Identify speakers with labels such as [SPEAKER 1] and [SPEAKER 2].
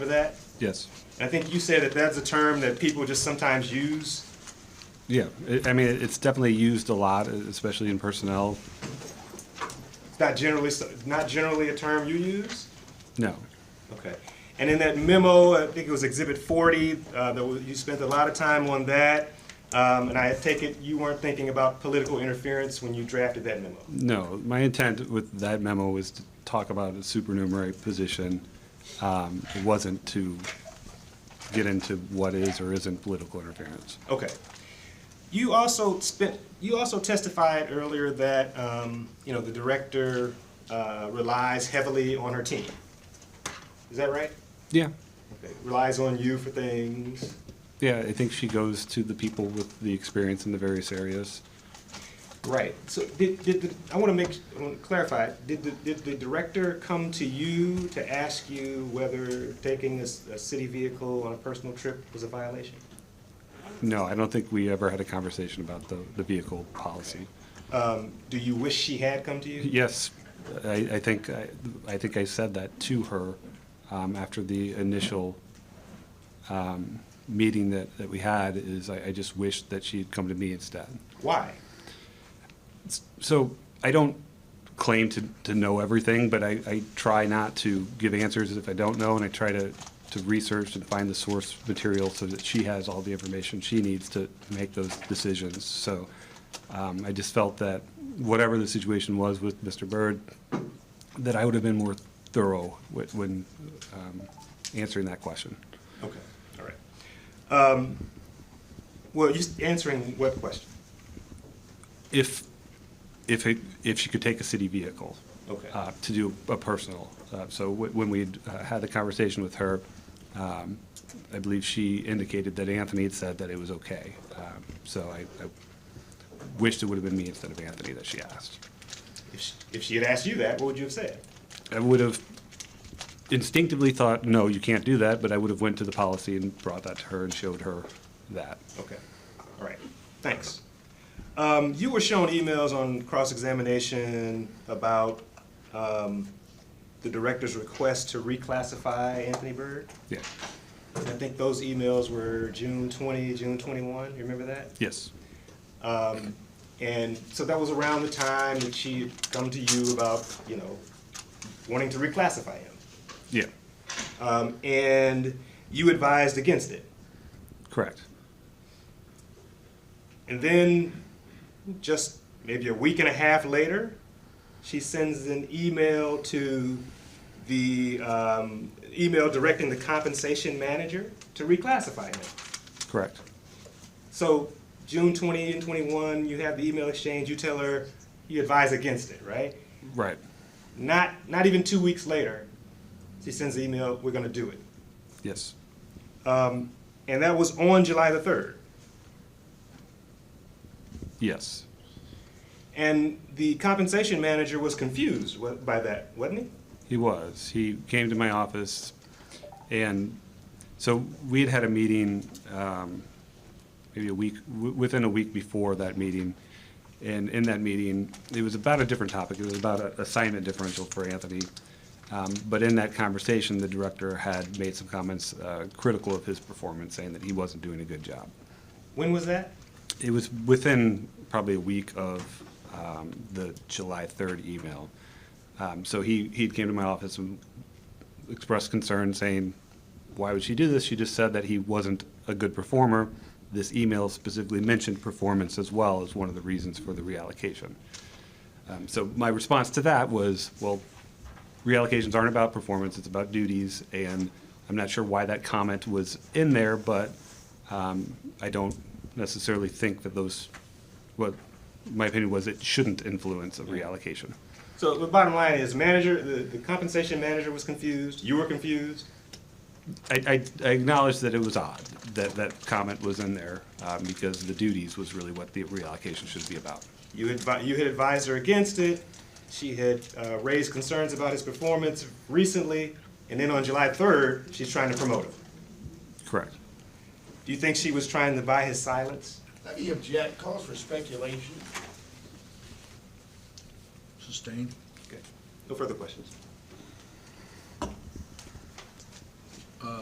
[SPEAKER 1] Remember that?
[SPEAKER 2] Yes,
[SPEAKER 1] I think you said that that's a term that people just sometimes use.
[SPEAKER 2] yeah, I- I mean, it's definitely used a lot, especially in personnel,
[SPEAKER 1] It's not generally, not generally a term you use?
[SPEAKER 2] no.
[SPEAKER 1] Okay. And in that memo, I think it was Exhibit 40, uh, that was- you spent a lot of time on that. Um, And I take it you weren't thinking about political interference when you drafted that memo?
[SPEAKER 2] No, my intent with that memo was to talk about a supernumerary position. Um, It wasn't to get into what is or isn't political interference.
[SPEAKER 1] Okay. You also spent, you also testified earlier that, um, you know, the director uh, relies heavily on her team. Is that right?
[SPEAKER 2] Yeah,
[SPEAKER 1] Okay. Relies on you for things.
[SPEAKER 2] yeah, I think she goes to the people with the experience in the various areas.
[SPEAKER 1] Right. So did, did, the- I want to make, I want to clarify, did the, did the director come to you to ask you whether taking a, s- a city vehicle on a personal trip was a violation?
[SPEAKER 2] No, I don't think we ever had a conversation about the, the vehicle policy.
[SPEAKER 1] Um, do you wish she had come to you?
[SPEAKER 2] Yes, I, I think, I I think I said that to her um, after the initial um, meeting that, that we had, is I, I just wished that she had come to me instead.
[SPEAKER 1] Why?
[SPEAKER 2] So I don't claim to, to know everything, but I, I try not to give answers if I don't know, and I try to, to research and find the source material so that she has all the information she needs to make those decisions. So um, I just felt that whatever the situation was with Mr. Byrd, that I would have been more thorough whe- when um, answering that question.
[SPEAKER 1] Okay, all right. Um, well, you s- answering what question?
[SPEAKER 2] If, if, it- if she could take a city vehicle.
[SPEAKER 1] Okay.
[SPEAKER 2] uh, to do a personal. Uh, So wh- when we uh, had the conversation with her, um, I believe she indicated that Anthony had said that it was okay. Um, So I I wished it would have been me instead of Anthony that she asked.
[SPEAKER 1] If she, if she had asked you that, what would you have said?
[SPEAKER 2] I would have instinctively thought, no, you can't do that, but I would have went to the policy and brought that to her and showed her that.
[SPEAKER 1] Okay, all right, thanks. Um, you were shown emails on cross-examination about, um, the director's request to reclassify Anthony Byrd.
[SPEAKER 2] Yeah,
[SPEAKER 1] I think those emails were June twenty, June twenty-one, you remember that?
[SPEAKER 2] yes,
[SPEAKER 1] Um, and so that was around the time that she had come to you about, you know, wanting to reclassify him.
[SPEAKER 2] yeah,
[SPEAKER 1] Um, and you advised against it.
[SPEAKER 2] correct.
[SPEAKER 1] And then, just maybe a week and a half later, she sends an email to the um, email directing the compensation manager to reclassify him.
[SPEAKER 2] Correct,
[SPEAKER 1] So, June 20 and 21, you have the email exchange, you tell her, you advise against it, right?
[SPEAKER 2] right,
[SPEAKER 1] Not, not even two weeks later, she sends the email, we're going to do it.
[SPEAKER 2] yes,
[SPEAKER 1] Um, and that was on July the 3rd.
[SPEAKER 2] yes,
[SPEAKER 1] And the compensation manager was confused wa- by that, wasn't he?
[SPEAKER 2] He was. He came to my office, and so we had had a meeting, um, maybe a week, w- within a week before that meeting. And in that meeting, it was about a different topic. It was about a assignment differential for Anthony. Um, but in that conversation, the director had made some comments uh, critical of his performance, saying that he wasn't doing a good job.
[SPEAKER 1] When was that?
[SPEAKER 2] It was within probably a week of um, the July 3rd email. Um, So he, he came to my office and expressed concern, saying, why would she do this? She just said that he wasn't a good performer. This email specifically mentioned performance as well as one of the reasons for the reallocation. Um, So my response to that was, well, reallocations aren't about performance, it's about duties, and I'm not sure why that comment was in there, but um, I don't necessarily think that those, what, my opinion was it shouldn't influence a reallocation.
[SPEAKER 1] So the bottom line is manager, the, the compensation manager was confused, you were confused.
[SPEAKER 2] I, I I acknowledge that it was odd that that comment was in there, um, because the duties was really what the reallocation should be about.
[SPEAKER 1] You advi- you had advised her against it. She had uh, raised concerns about his performance recently, and then on July third, she's trying to promote him.
[SPEAKER 2] Correct.
[SPEAKER 1] Do you think she was trying to buy his silence?
[SPEAKER 3] Let me object, calls for speculation.
[SPEAKER 4] Sustained.
[SPEAKER 1] Okay. No further questions.